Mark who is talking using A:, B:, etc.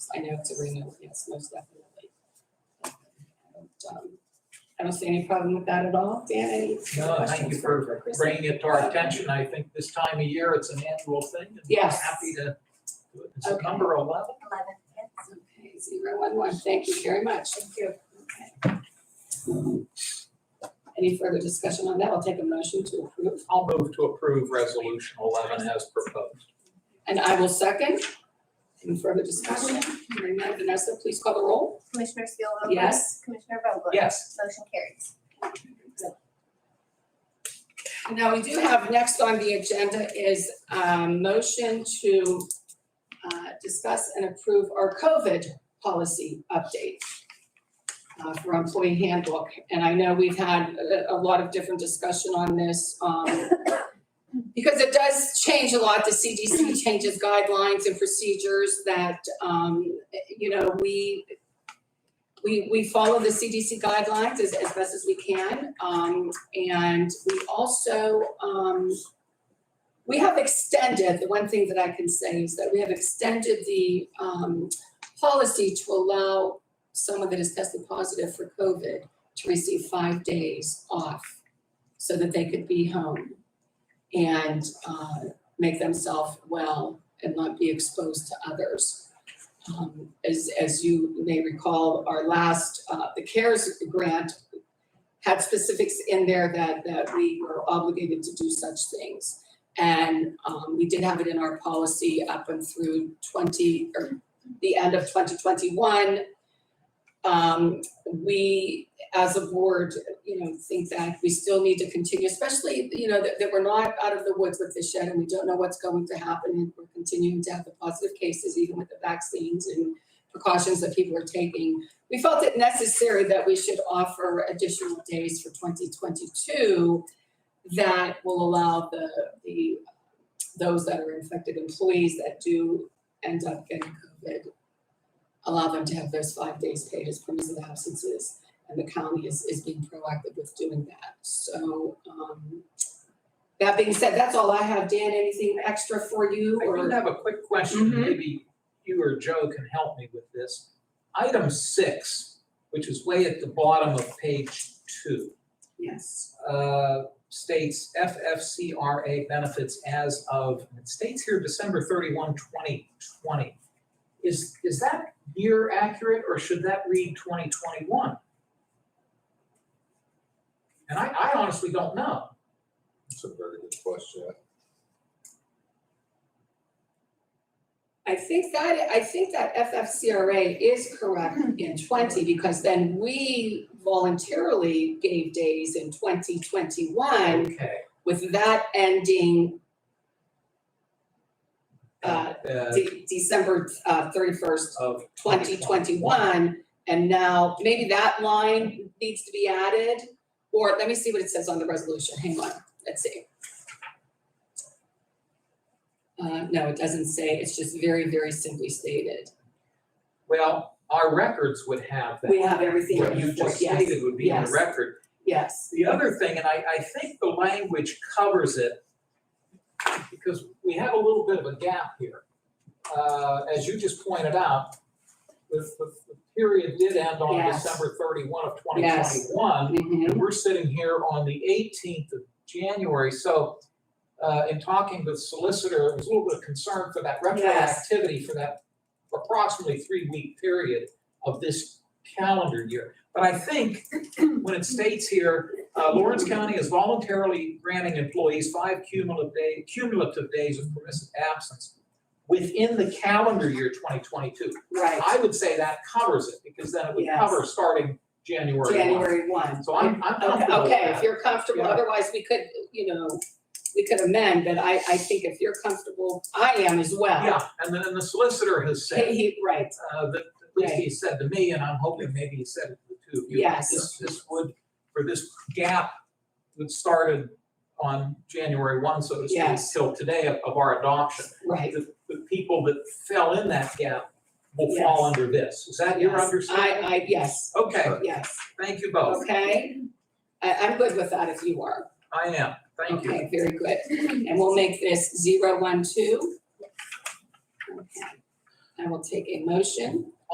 A: I know it's a renewal, yes, most definitely. And, um, I don't see any problem with that at all. Dan, any
B: No, thank
A: questions
B: you for
A: Chris?
B: bringing it to our attention. I think this time of year, it's an annual thing. and we're
A: Yes.
B: Happy to do it. It's
A: Okay.
B: number eleven.
C: Eleven, yes.
A: Okay, zero one one, thank you very much. Thank you. Any further discussion on that? I'll take a motion to approve.
B: I'll move to approve resolution eleven as proposed.
A: And I will second. Any further discussion? Hearing none, Vanessa, please call the roll.
C: Commissioner
A: Um,
C: Steelvogel?
A: Yes.
C: Commissioner Vogler?
B: Yes.
C: Motion carries.
A: And Now, we do have, next on the agenda is a motion to uh, discuss and approve our COVID policy update uh, for employee handbook. And I know we've had a- a lot of different discussion on this. um, Because it does change a lot. The CDC changes guidelines and procedures that, um, you know, we, we, we follow the CDC guidelines as, as best as we can. Um, and we also, um, we have extended, the one thing that I can say is that we have extended the, um, policy to allow someone that is tested positive for COVID to receive five days off so that they could be home and, uh, make themselves well and not be exposed to others. Um, as, as you may recall, our last, uh, the CARES grant had specifics in there that, that we were obligated to do such things. And, um, we did have it in our policy up and through twenty, or the end of twenty twenty-one. Um, we, as a board, you know, think that we still need to continue, especially, you know, that, that we're not out of the woods with this yet and we don't know what's going to happen. and We're continuing to have the positive cases, even with the vaccines and precautions that people are taking we felt it necessary that we should offer additional days for 2022 that will allow the, the, those that are infected employees that do end up getting COVID, allow them to have those five days paid as permissive absences. And the county is, is being proactive with doing that. So, um, that being said, that's all I have. Dan, anything extra for you
B: I do
A: or?
B: have a quick question.
A: Mhm.
B: Maybe you or Joe can help me with this. Item six, which is way at the bottom of page two.
A: Yes.
B: uh, states FFCRA benefits as of, it states here December 31, 2020. Is, is that year accurate or should that read 2021? And I, I honestly don't know.
D: That's a very good question.
A: I think that, I think that FFCRA is correct in twenty, because then we voluntarily gave days in twenty twenty-one
B: Okay.
A: with that ending uh,
B: Uh,
A: De- December uh, thirty-first,
B: Of
A: twenty twenty-one. And now, maybe that line needs to be added, or let me see what it says on the resolution, hang on, let's see. Uh, no, it doesn't say, it's just very, very simply stated.
B: Well, our records would have that.
A: We have everything
B: What
A: in
B: you
A: for,
B: just
A: yes,
B: stated would be in the
A: yes.
B: record.
A: yes.
B: The other thing, and I, I think the language covers it, because we have a little bit of a gap here. Uh, as you just pointed out, the, the, the period did end on
A: Yes.
B: December thirty-one of twenty
A: Yes.
B: twenty-one.
A: Mhm.
B: And we're sitting here on the eighteenth of January, so, uh, in talking with solicitor, there was a little bit of concern for that
A: Yes.
B: retroactivity for that approximately three-week period of this calendar year. But I think when it states here, uh, Lawrence County is voluntarily granting employees five cumulative day, cumulative days of permissive absence within the calendar year twenty twenty-two.
A: Right,
B: I would say that covers it, because then it would
A: Yes.
B: cover starting January one.
A: January one.
B: So I'm, I'm
A: Okay,
B: comfortable with
A: okay, if
B: that.
A: you're comfortable,
B: Yeah.
A: otherwise we could, you know, we could amend, but I, I think if you're comfortable, I am as well.
B: Yeah, and then, and the solicitor has
A: He-
B: said,
A: he- right,
B: uh, that, at least he said to me, and I'm hoping maybe he said it to the two of you. that
A: Yes.
B: This, this would, for this gap that started on January one, so to speak,
A: Yes.
B: till today of, of our adoption.
A: right.
B: The, the people that fell in that gap will fall
A: Yes.
B: under this. Is that your
A: Yes.
B: understanding?
A: I, I, yes,
B: Okay,
A: yes,
B: thank you both.
A: okay. I, I'm good with that if you are.
B: I am, thank you.
A: Okay, very good. And we'll make this zero one two. Okay. I will take a motion